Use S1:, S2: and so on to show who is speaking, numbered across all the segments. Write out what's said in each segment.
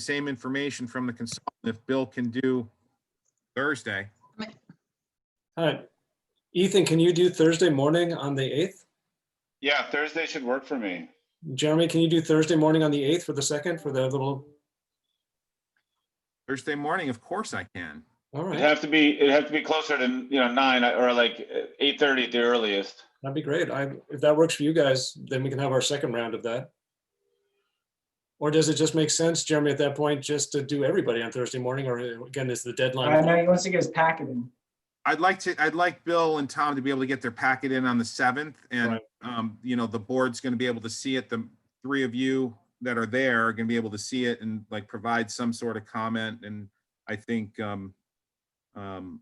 S1: same information from the consultant if Bill can do Thursday.
S2: All right. Ethan, can you do Thursday morning on the 8th?
S3: Yeah, Thursday should work for me.
S2: Jeremy, can you do Thursday morning on the 8th for the second for the little,
S1: Thursday morning, of course I can.
S2: all
S3: It'd
S2: right,
S3: have to be, it'd have to be closer to, you know, nine or like eight thirty at the earliest.
S2: that'd be great. I, if that works for you guys, then we can have our second round of that. Or does it just make sense, Jeremy, at that point, just to do everybody on Thursday morning, or uh, again, is the
S4: I know,
S2: deadline?
S4: he wants to get his packet in.
S1: I'd like to, I'd like Bill and Tom to be able to get their packet in on the seventh and,
S2: Right.
S1: um, you know, the board's gonna be able to see it. The three of you that are there are gonna be able to see it and like provide some sort of comment and I think, um, um,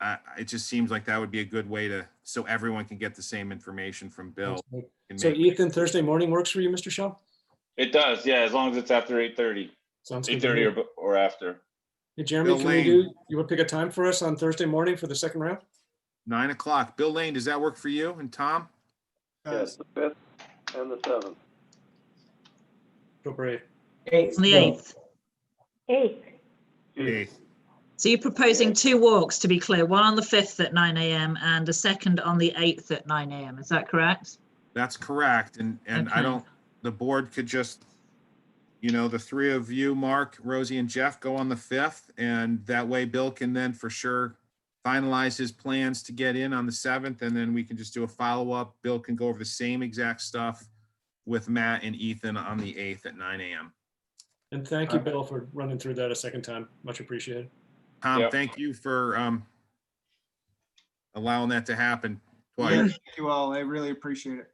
S1: I, I- it just seems like that would be a good way to, so everyone can get the same information from Bill. and
S2: So
S1: make-
S2: Ethan, Thursday morning works for you, Mr. Shaw?
S3: It does, yeah, as long as it's after eight thirty,
S2: Sounds good.
S3: eight
S2: to
S3: thirty
S2: me.
S3: or, b- or after.
S2: Hey, Jeremy,
S1: Bill
S2: can you
S1: Lane.
S2: do, you would pick a time for us on Thursday morning for the second round?
S1: Nine o'clock. Bill Lane, does that work for you and Tom?
S5: Yes, the fifth and the seventh.
S2: Go Brave.
S4: Eight,
S6: On the
S4: no.
S6: 8th.
S7: Eight,
S1: Yes.
S6: So you're proposing two walks, to be clear, one on the 5th at 9 AM and a second on the 8th at 9 AM. Is that correct?
S1: That's correct, and, and I
S6: Okay.
S1: don't, the board could just, you know, the three of you, Mark, Rosie, and Jeff go on the fifth, and that way Bill can then for sure finalize his plans to get in on the seventh, and then we can just do a follow-up. Bill can go over the same exact stuff with Matt and Ethan on the eighth at nine AM.
S2: And thank you, Bill, for running through that a second time. Much appreciated.
S1: Tom,
S3: Yep.
S1: thank you for, um, allowing that to happen
S4: Yeah,
S1: twice.
S4: Thank you all. I really appreciate it.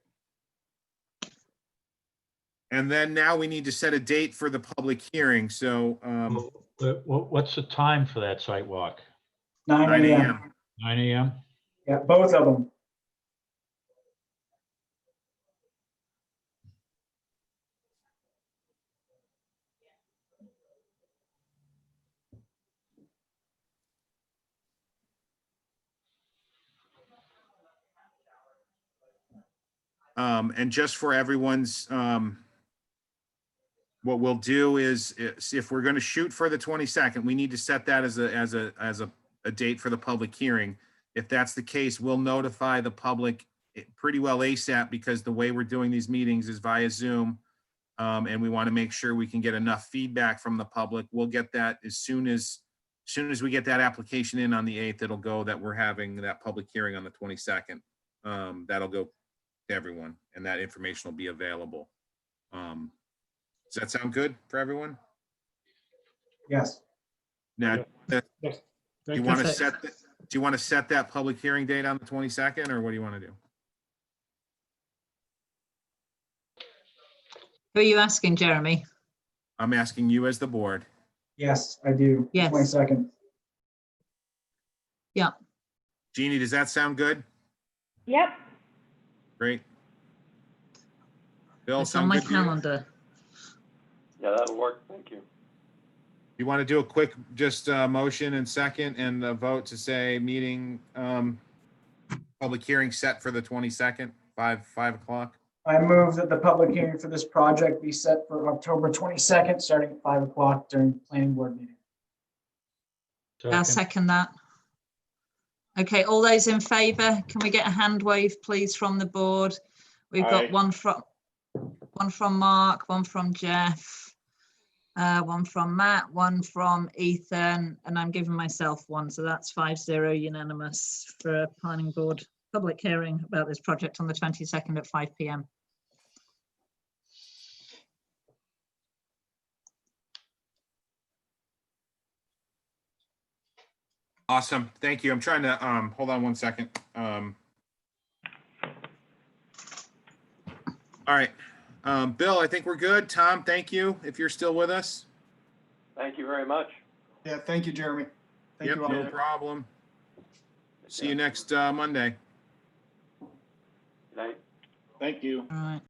S1: And then now we need to set a date for the public hearing, so, um,
S8: Well, wha- wha- What's the time for that site walk?
S4: Nine
S1: 9
S4: AM.
S1: AM.
S8: Nine AM?
S4: Yeah, both of them.
S1: Um, and just for everyone's, um, what we'll do is, is if we're gonna shoot for the twenty-second, we need to set that as a, as a, as a, a date for the public hearing. If that's the case, we'll notify the public eh, pretty well ASAP because the way we're doing these meetings is via Zoom. Um, and we want to make sure we can get enough feedback from the public. We'll get that as soon as, soon as we get that application in on the eighth, it'll go that we're having that public hearing on the twenty-second. Um, that'll go to everyone and that information will be available. Um, does that sound good for everyone?
S4: Yes.
S1: Now, do
S2: Thank
S1: you
S2: you.
S1: want to
S6: Perfect.
S1: set, th- do you want to set that public hearing date on the twenty-second or what do you want to do?
S6: Who are you asking, Jeremy?
S1: I'm asking you as the board.
S4: Yes, I do.
S6: Yes.
S4: Twenty second.
S1: Jeannie, does that sound good?
S7: yep,
S1: Great. Bill,
S6: It's on
S1: sound
S6: my
S1: good to you?
S6: calendar.
S5: Yeah, that'll work. Thank you.
S1: You want to do a quick, just uh motion and second and a vote to say meeting, um, public hearing set for the twenty-second, five, five o'clock?
S4: I move that the public hearing for this project be set for October twenty second, starting at five o'clock during the planning board meeting.
S6: I'll
S8: Second.
S6: second that. Okay, all those in favour, can we get a hand wave, please, from the board? We've
S3: Aye.
S6: got one from, one from Mark, one from Jeff, uh, one from Matt, one from Ethan, and I'm giving myself one, so that's five zero unanimous for a planning board public hearing about this project on the twenty-second at five PM.
S1: Awesome. Thank you. I'm trying to, um, hold on one second. Um. All right. Um, Bill, I think we're good. Tom, thank you. If you're still with us.
S5: Thank you very much.
S4: Yeah, thank you, Jeremy.
S1: Yep, no problem. See you next, uh, Monday.
S5: Good night.
S3: Thank you.
S6: All right.